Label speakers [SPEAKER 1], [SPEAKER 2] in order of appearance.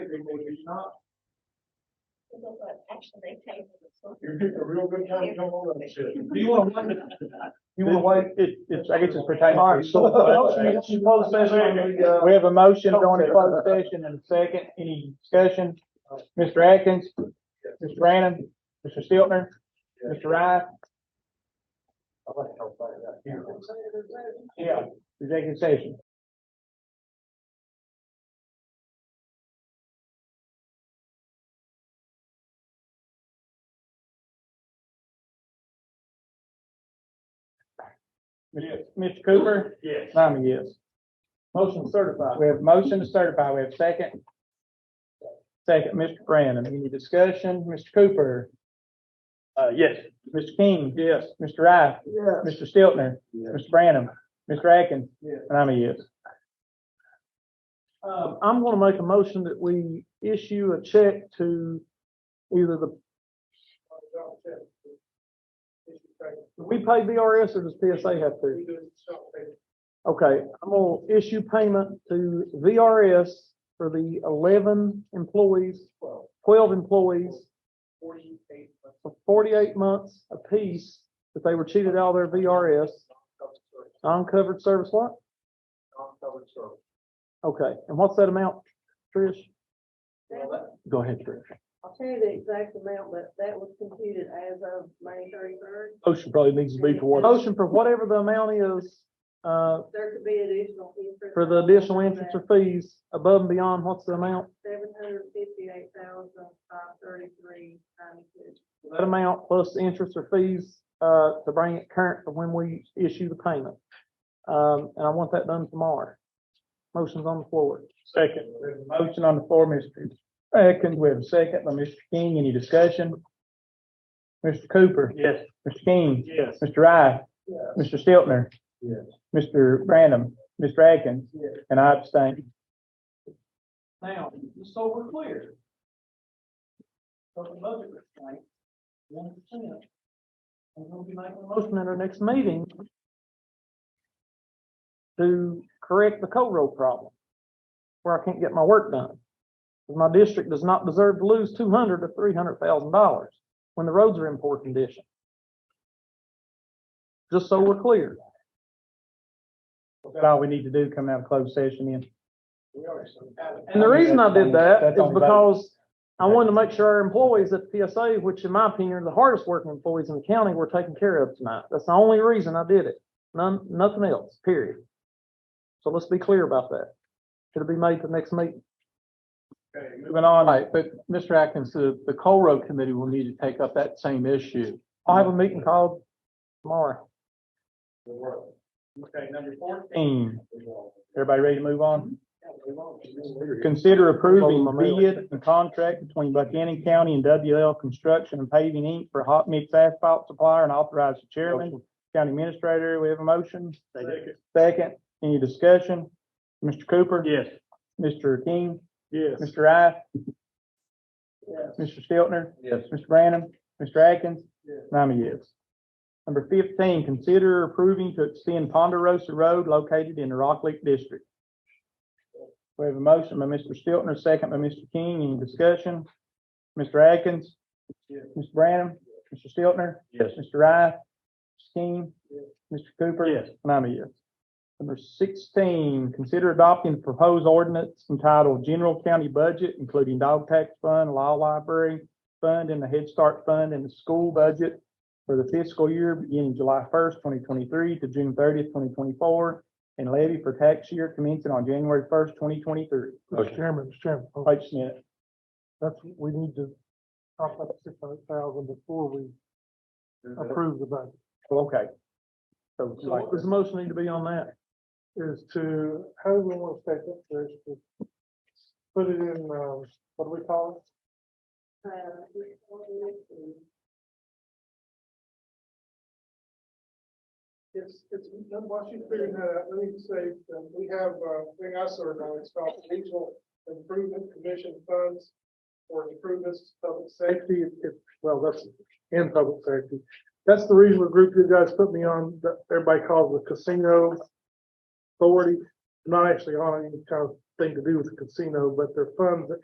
[SPEAKER 1] anymore, he's not,
[SPEAKER 2] But actually, they pay for the social.
[SPEAKER 1] you're getting a real good time, come on, that's it.
[SPEAKER 3] You want one?
[SPEAKER 4] You want what? It, it's, I guess it's for time.
[SPEAKER 3] All right, so, uh,
[SPEAKER 1] Close session, uh,
[SPEAKER 4] We have a motion going to closed session and a second. Any discussion? Mr. Atkins, Mr. Brandon, Mr. Stiltner, Mr. Wright,
[SPEAKER 1] I like how far that here.
[SPEAKER 4] yeah, executive session. Mr. Cooper?
[SPEAKER 1] Yes.
[SPEAKER 4] I'm a yes. Motion certified. We have motion to certify. We have second. Second, Mr. Brandon. Any discussion? Mr. Cooper? Uh, yes. Mr. King? Yes. Mr. Wright?
[SPEAKER 1] Yeah.
[SPEAKER 4] Mr. Stiltner?
[SPEAKER 1] Yes.
[SPEAKER 4] Mr. Brandon? Mr. Atkins?
[SPEAKER 1] Yes.
[SPEAKER 4] And I'm a yes.
[SPEAKER 3] Um, I'm gonna make a motion that we issue a check to either the, do we pay BRS or does PSA have to? Okay, I'm gonna issue payment to VRS for the eleven employees, twelve employees for forty-eight months apiece that they were cheated out of their VRS, non-covered service lot? Okay, and what's that amount, Trish? Go ahead, Trish.
[SPEAKER 5] I'll tell you the exact amount, but that was computed as of May thirty-third.
[SPEAKER 4] Motion probably needs
[SPEAKER 5] to be for what-
[SPEAKER 3] Motion for whatever the amount is, uh,
[SPEAKER 5] There could be additional interest.
[SPEAKER 3] for the additional interest or fees above and beyond, what's the amount?
[SPEAKER 5] Seven hundred fifty-eight thousand, five thirty-three, ninety-two.
[SPEAKER 3] That amount plus the interest or fees, uh, to bring it current for when we issue the payment. Um, and I want that done tomorrow. Motion's on the floor.
[SPEAKER 4] Second, we have a motion on the floor, Mr. Atkins, we have a second by Mr. King, any discussion? Mr. Cooper?
[SPEAKER 3] Yes.
[SPEAKER 4] Mr. King?
[SPEAKER 3] Yes.
[SPEAKER 4] Mr. Wright? Mr. Stiltner?
[SPEAKER 1] Yes.
[SPEAKER 4] Mr. Brandon? Mr. Atkins?
[SPEAKER 3] Yes.
[SPEAKER 4] And I abstain.
[SPEAKER 3] Now, just so we're clear. So the budget restraint, one percent. And we'll be making a motion at our next meeting to correct the co-road problem, where I can't get my work done. 'Cause My district does not deserve to lose two hundred to three hundred thousand dollars when the roads are in poor condition. Just so we're clear.
[SPEAKER 4] Is that all we need to do, come out of closed session then?
[SPEAKER 3] And the reason I did that
[SPEAKER 4] That's
[SPEAKER 3] is
[SPEAKER 4] on both.
[SPEAKER 3] because I wanted to make sure our employees at PSA, which in my opinion are the hardest working employees in the county, were taken care of tonight. That's the only reason I did it. None, nothing else, period. So let's be clear about that. It'll be made the next meeting.
[SPEAKER 4] Moving on. but Mr. Atkins, the, the Coal Road Committee will need to take up that same issue.
[SPEAKER 3] I'll have a meeting called tomorrow.
[SPEAKER 1] Okay, number fourteen.
[SPEAKER 4] Everybody ready to move on? Consider approving
[SPEAKER 3] Follow my mail.
[SPEAKER 4] bid and contract between Buchanan County and WL Construction and Paving Inc. for hot mix asphalt supplier and authorize the chairman, county administrator. We have a motion. Second, any discussion? Mr. Cooper?
[SPEAKER 3] Yes.
[SPEAKER 4] Mr. King?
[SPEAKER 3] Yes.
[SPEAKER 4] Mr. Rice? Mr. Stiltner?
[SPEAKER 1] Yes.
[SPEAKER 4] Mr. Brannum? Mr. Atkins?
[SPEAKER 3] Yes.
[SPEAKER 4] And I'm a yes. Number fifteen, consider approving to extend Ponderosa Road located in the Rock Lake District. We have a motion by Mr. Stiltner, second by Mr. King. Any discussion? Mr. Atkins?
[SPEAKER 3] Yes.
[SPEAKER 4] Mr. Brannum? Mr. Stiltner?
[SPEAKER 1] Yes.
[SPEAKER 4] Mr. Rice? Mr. King?
[SPEAKER 3] Yes.
[SPEAKER 4] Mr. Cooper?
[SPEAKER 3] Yes.
[SPEAKER 4] And I'm a yes. Number sixteen, consider adopting the proposed ordinance entitled General County Budget, including Dog Tax Fund, Law Library Fund, and the Head Start Fund, and the school budget for the fiscal year beginning July first, twenty twenty-three to June thirtieth, twenty twenty-four, and levy for tax year commencing on January first, twenty twenty-three.
[SPEAKER 1] Motion.
[SPEAKER 3] Chairman, Mr. Chairman,
[SPEAKER 4] Wait just a minute.
[SPEAKER 3] that's, we need to talk about six hundred thousand before we approve the budget.
[SPEAKER 4] Well, Oh, okay. So,
[SPEAKER 3] So what does the motion need to be on that? Is to, how do we want to take it, Trish? To Put it in, um, what do we call
[SPEAKER 5] Uh, we- Uh,
[SPEAKER 6] It's, it's, while she's figuring that
[SPEAKER 3] uh,
[SPEAKER 6] out, let me say, um, we have, uh, thing I serve on, it's called regional improvement commission funds for improvements to public
[SPEAKER 3] it?
[SPEAKER 6] safety.
[SPEAKER 3] Safety, if, well, that's in public safety. That's the reason the group you guys put me on, that everybody calls the casino authority. Not actually on any kind of thing to do with the casino, but they're funds that